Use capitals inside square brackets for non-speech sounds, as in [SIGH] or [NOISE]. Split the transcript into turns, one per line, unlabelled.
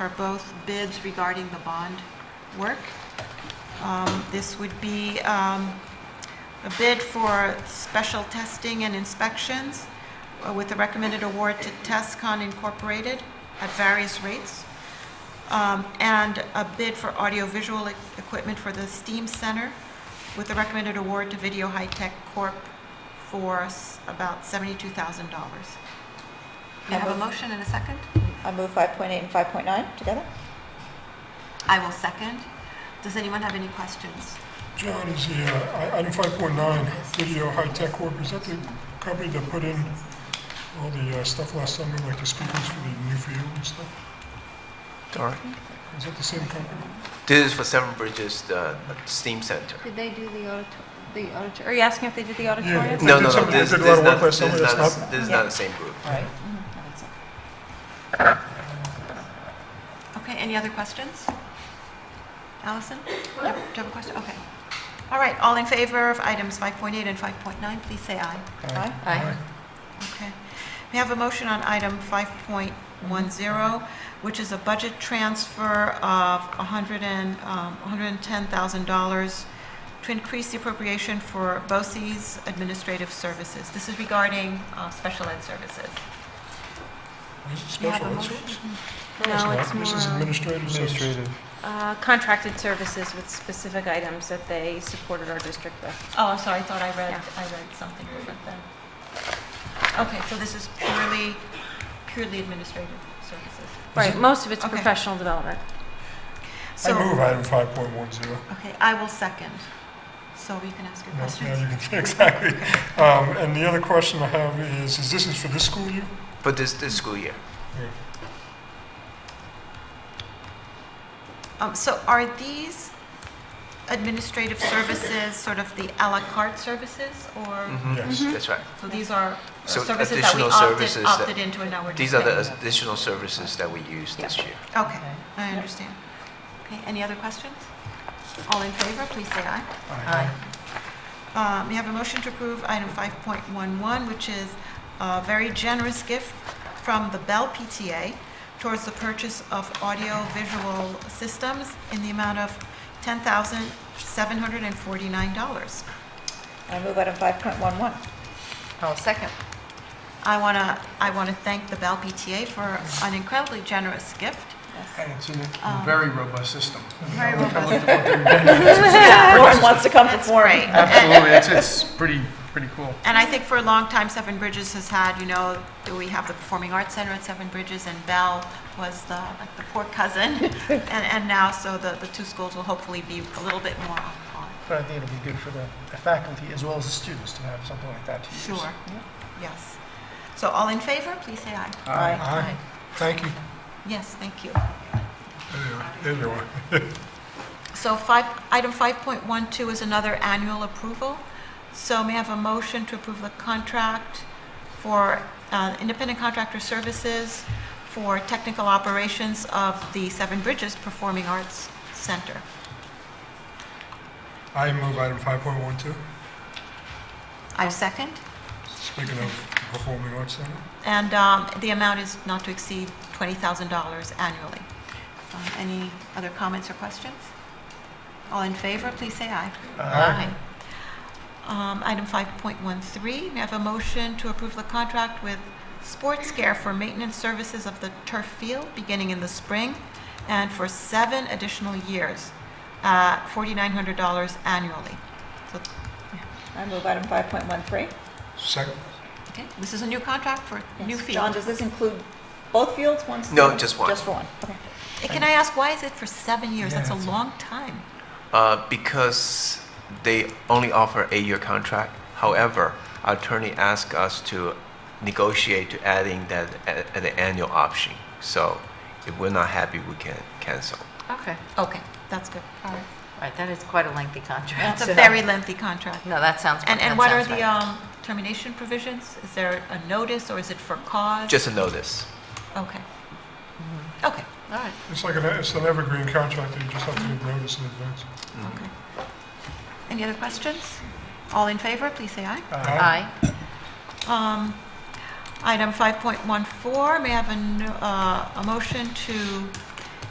are both bids regarding the bond work. Um, This would be um, a bid for special testing and inspections uh, with a recommended award to Tascon Incorporated at various rates, Um, and a bid for audiovisual e- equipment for the STEAM Center with a recommended award to Video High Tech Corp. for s- about $72,000. May I have a motion and a second?
I move 5.8 and 5.9 together.
I will second. Does anyone have any questions?
John, is the, uh, I- item 5.9, Video High Tech Corp., is that the company that put in all the uh, stuff last summer, like the speakers for the New View and stuff?
All right.
Is that the same company?
This is for Seven Bridges uh, STEAM Center.
Did they do the audit, the audit, are you asking if they did the auditorium?
If they
No,
did
no, no,
something-
this
if they did
this is
a lot of
not,
work last
this
summer,
is
that's
not,
not-
this is
Yeah.
not the same group.
Right.
Okay, any other questions? Allison? Yep, Do you have a question? Okay. All right, all in favor of items 5.8 and 5.9, please say aye.
Aye.
Aye.
Okay. We have a motion on item 5.10, which is a budget transfer of 100 and, um, $110,000 to increase the appropriation for BOCES administrative services. This is regarding uh, special ed services.
This is
You have a
special ed
motion?
services.
No, it's
This is
more, um,
administrative services.
Uh, Contracted services with specific items that they supported our district with.
Oh, I'm sorry, I thought I read,
Yeah.
I read something different then. Okay, so this is purely, purely administrative services.
Right, most of it's
Okay.
professional development.
I
So,
move item 5.10.
okay, I will second, so we can ask your
No,
questions.
Now you can, [LAUGHS] exactly. Um, And the other question I have is, is this is for this school year?
For this, this school year.
Um, So are these administrative services sort of the à la carte services, or,
Mhm.
Yes.
That's right.
so these are
So
services that we
additional services
opted,
that-
opted into and now we're just
These are
paying?
the additional services that we use this year.
Okay, I understand. Okay, any other questions? All in favor, please say aye. Uh, May I have a motion to approve item 5.11, which is a very generous gift from the Bell PTA towards the purchase of audiovisual systems in the amount of $10,749.
I move item
[LAUGHS]
5.11.
I'll second. I want to, I want to thank the Bell PTA for an incredibly generous gift.
And it's in a
Um,
very robust system.
Very
I looked at
robust.
what they're doing.
Warren wants to come to
That's
Warren.
great.
Absolutely, it's, it's pretty, pretty cool.
And I think for a long time, Seven Bridges has had, you know, we have the Performing Arts Center at Seven Bridges, and Bell was the, like, the poor cousin. And, and now, so the, the two schools will hopefully be a little bit more on.
But I think it'll be good for the the faculty as well as the students to have something like that to use.
Sure. Yes. So all in favor, please say aye.
Aye.
Aye. Thank you.
Yes, thank you.
There you are. There you are.
So five, item 5.12 is another annual approval. So may I have a motion to approve the contract for uh, independent contractor services for technical operations of the Seven Bridges Performing Arts Center?
I move item 5.12,
I second.
speaking of performing arts center.
And um, the amount is not to exceed $20,000 annually. Um, Any other comments or questions? All in favor, please say aye.
Aye.
Um, Item 5.13, may I have a motion to approve the contract with Sports Care for maintenance services of the turf field beginning in the spring and for seven additional years, at $4,900 annually. So,
I move item 5.13.
Second,
okay, This is a new contract for new
Yes. John,
field.
does this include both fields, one field?
No, just one.
Just for one, okay.
Eh, Can I ask, why is it for seven years?
Yeah,
That's a
that's-
long time.
Uh, Because they only offer eight-year contract. However, our attorney asked us to negotiate to adding that at at the annual option. So if we're not happy, we can cancel.
Okay,
Okay, that's good. All right.
all right, that is quite [LAUGHS] a lengthy contract.
That's a very lengthy contract.
No, that sounds.
And,
that
and what are
sounds
the
right.
um, termination provisions? Is there a notice or is it for cause?
Just a notice.
Okay. Okay, all right,
it's like an, it's an evergreen contract that you just have to notice in advance.
Mm-hmm.
okay. Any other questions? All in favor, please say aye.
Aye.
Um, Item 5.14, may I have a, no- uh, a motion to